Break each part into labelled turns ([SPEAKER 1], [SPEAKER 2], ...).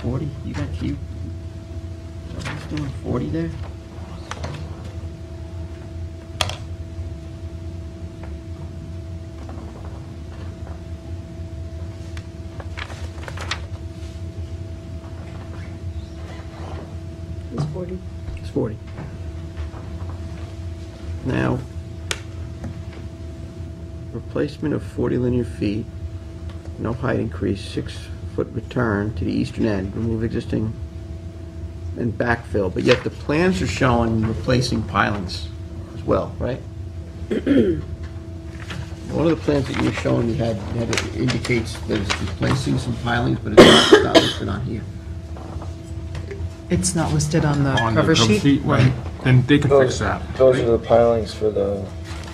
[SPEAKER 1] forty? You got you. Someone's doing forty there?
[SPEAKER 2] It's 40.
[SPEAKER 1] It's forty. Now, replacement of forty linear feet, no height increase, six-foot return to the eastern end, remove existing and backfill, but yet the plans are showing replacing pilings as well, right? One of the plans that you were showing, you had, had it indicates that it's replacing some pilings, but it's not- not listed on here.
[SPEAKER 3] It's not listed on the
[SPEAKER 4] on the
[SPEAKER 3] cover sheet.
[SPEAKER 4] complete way, then they can fix
[SPEAKER 5] Those,
[SPEAKER 4] that.
[SPEAKER 5] those are the pilings for the,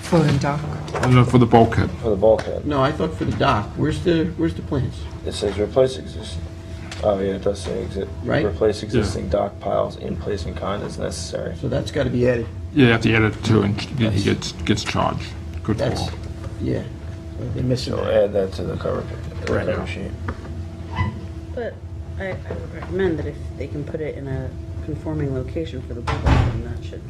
[SPEAKER 3] Floating dock.
[SPEAKER 4] And then For the bulkhead.
[SPEAKER 5] for the bulkhead.
[SPEAKER 1] No, I thought for the dock, where's the, where's the plans?
[SPEAKER 5] It says replace existing, oh yeah, it does say exist.
[SPEAKER 1] Right.
[SPEAKER 5] Replace existing dock piles in place and kind as necessary.
[SPEAKER 1] So that's gotta be added.
[SPEAKER 4] Yeah, you have to add it to, and he gets, gets charged. Good
[SPEAKER 1] That's,
[SPEAKER 4] call.
[SPEAKER 1] yeah, they're missing
[SPEAKER 5] So
[SPEAKER 1] that.
[SPEAKER 5] add that to the cover, the
[SPEAKER 1] Right.
[SPEAKER 5] cover sheet.
[SPEAKER 2] But I, I would recommend that if they can put it in a conforming location for the bulkhead, then that should.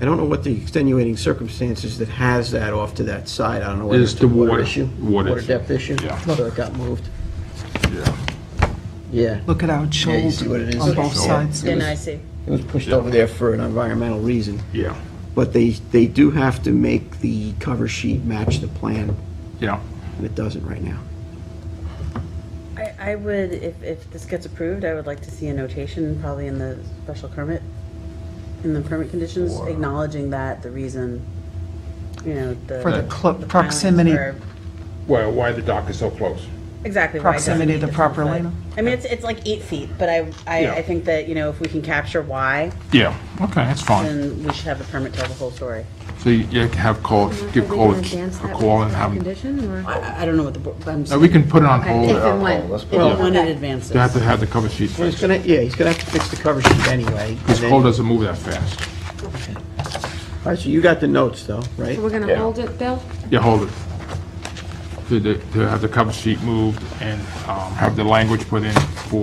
[SPEAKER 1] I don't know what the extenuating circumstances that has that off to that side, I don't know whether
[SPEAKER 4] Is
[SPEAKER 1] it's a
[SPEAKER 4] the
[SPEAKER 1] water
[SPEAKER 4] water-
[SPEAKER 1] issue.
[SPEAKER 4] water
[SPEAKER 1] Water
[SPEAKER 4] issue.
[SPEAKER 1] depth issue.
[SPEAKER 4] Yeah.
[SPEAKER 1] So it got moved,
[SPEAKER 4] Yeah.
[SPEAKER 1] yeah.
[SPEAKER 3] Look at how it's
[SPEAKER 1] Yeah, you
[SPEAKER 3] shoals
[SPEAKER 1] see what it is.
[SPEAKER 3] on both
[SPEAKER 4] Shoals.
[SPEAKER 3] sides.
[SPEAKER 1] Yeah,
[SPEAKER 2] Then
[SPEAKER 1] no,
[SPEAKER 2] I
[SPEAKER 1] I
[SPEAKER 2] see.
[SPEAKER 1] It was pushed over there for an environmental reason,
[SPEAKER 4] Yeah,
[SPEAKER 1] but they, they do have to make the cover sheet match the plan,
[SPEAKER 4] yeah.
[SPEAKER 1] and it doesn't right now.
[SPEAKER 2] I, I would, if, if this gets approved, I would like to see a notation, probably in the special permit, in the permit conditions, acknowledging that the reason, you know, the.
[SPEAKER 3] For the clo-
[SPEAKER 2] pilings
[SPEAKER 3] proximity.
[SPEAKER 2] are-
[SPEAKER 4] Well, why the dock is so close?
[SPEAKER 2] Exactly. why it doesn't
[SPEAKER 3] Proximity
[SPEAKER 2] meet
[SPEAKER 3] to
[SPEAKER 2] the
[SPEAKER 3] proper
[SPEAKER 2] front side.
[SPEAKER 3] lane.
[SPEAKER 2] I mean, it's, it's like eight feet, but I, I,
[SPEAKER 4] Yeah.
[SPEAKER 2] I think that, you know, if we can capture why,
[SPEAKER 4] Yeah, okay, that's fine.
[SPEAKER 2] then we should have the permit tell the whole story.
[SPEAKER 4] So you you have call, give call a a call and have, them-
[SPEAKER 6] Condition or?
[SPEAKER 2] I, I don't know what the, bo- I'm
[SPEAKER 4] no,
[SPEAKER 2] saying.
[SPEAKER 4] we can put it on
[SPEAKER 6] Okay,
[SPEAKER 4] hold.
[SPEAKER 6] If and
[SPEAKER 4] They
[SPEAKER 6] when.
[SPEAKER 5] Oh, Let's
[SPEAKER 6] If
[SPEAKER 5] put
[SPEAKER 6] and
[SPEAKER 5] it-
[SPEAKER 2] When
[SPEAKER 6] when.
[SPEAKER 2] it advances.
[SPEAKER 4] have to have the cover sheet
[SPEAKER 1] Well, he's
[SPEAKER 4] fixed.
[SPEAKER 1] gonna, yeah, he's gonna have to fix the cover sheet anyway. and
[SPEAKER 4] This
[SPEAKER 1] then-
[SPEAKER 4] call doesn't move that fast.
[SPEAKER 1] All right, so you got the notes though, right?
[SPEAKER 6] So we're gonna
[SPEAKER 5] Yeah.
[SPEAKER 6] hold it, Bill?
[SPEAKER 4] Yeah, hold it. To, the- to have the cover sheet moved and, um, have the language put in for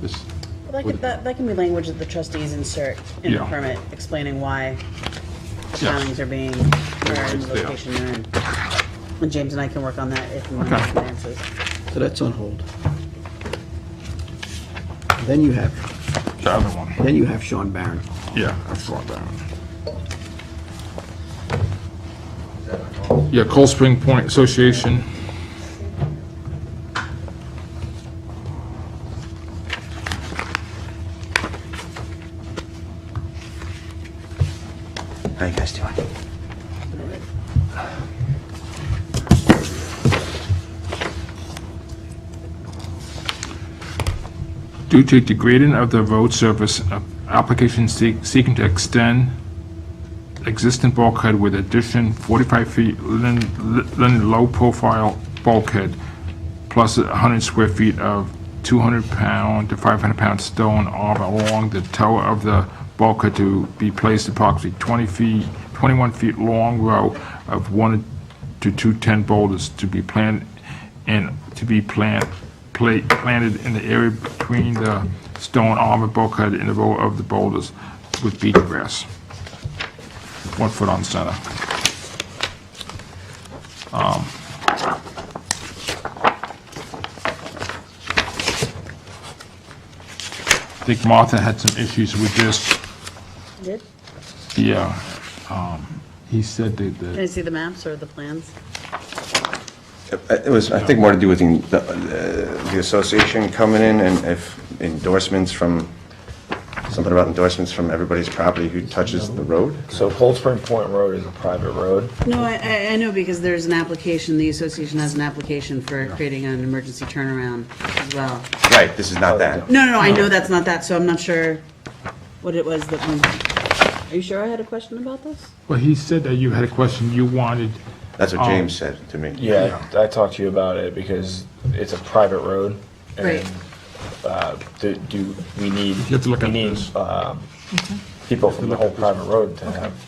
[SPEAKER 4] this,
[SPEAKER 2] That can, that, that can be language that the trustees insert in the
[SPEAKER 4] Yeah.
[SPEAKER 2] permit, explaining why the
[SPEAKER 4] Yeah.
[SPEAKER 2] filings are being, or in
[SPEAKER 4] it's
[SPEAKER 2] the
[SPEAKER 4] there.
[SPEAKER 2] location they're in. And James and I can work on that if and when
[SPEAKER 4] Okay.
[SPEAKER 2] it advances.
[SPEAKER 1] So that's on hold. Then you have,
[SPEAKER 4] the other one.
[SPEAKER 1] then you have Sean Barron.
[SPEAKER 4] Yeah, that's what that one. Yeah, Cold Spring Point Association.
[SPEAKER 1] How you guys doing?
[SPEAKER 4] Due to degrading of the road surface, a- application seek- seeking to extend existing bulkhead with addition 45 feet lin- lin- low-profile bulkhead plus 100 square feet of 200-pound to 500-pound stone arm along the toe of the bulkhead to be placed approximately 20 feet, 21 feet long row of one to two 10 boulders to be planted and to be plant, pla- planted in the area between the stone arm and bulkhead and the row of the boulders with beach grass. One foot on center. I think Martha had some issues with this.
[SPEAKER 2] Did,
[SPEAKER 4] Yeah, um, he said that
[SPEAKER 2] can
[SPEAKER 4] the,
[SPEAKER 2] I see the maps or the plans?
[SPEAKER 7] Uh, It was, I think, more to do with the, uh, the association coming in and if endorsements from, something about endorsements from everybody's property who touches the road.
[SPEAKER 5] So Cold Spring Point Road is a private road.
[SPEAKER 2] No, I, I, I know because there's an application, the association has an application for creating an emergency turnaround as well.
[SPEAKER 7] Right, this is not that.
[SPEAKER 2] No, no, no, I know that's not that, so I'm not sure what it was that, we- are you sure I had a question about this?
[SPEAKER 4] well, he said that you had a question you wanted,
[SPEAKER 7] That's
[SPEAKER 4] Um,
[SPEAKER 7] what James said to me.
[SPEAKER 5] Yeah, I I talked to you about it because it's a private road. and,
[SPEAKER 2] Right.
[SPEAKER 5] uh, Do, do we need?
[SPEAKER 4] have to look
[SPEAKER 5] we
[SPEAKER 4] at
[SPEAKER 5] need,
[SPEAKER 4] this.
[SPEAKER 5] um, People from the whole private road to have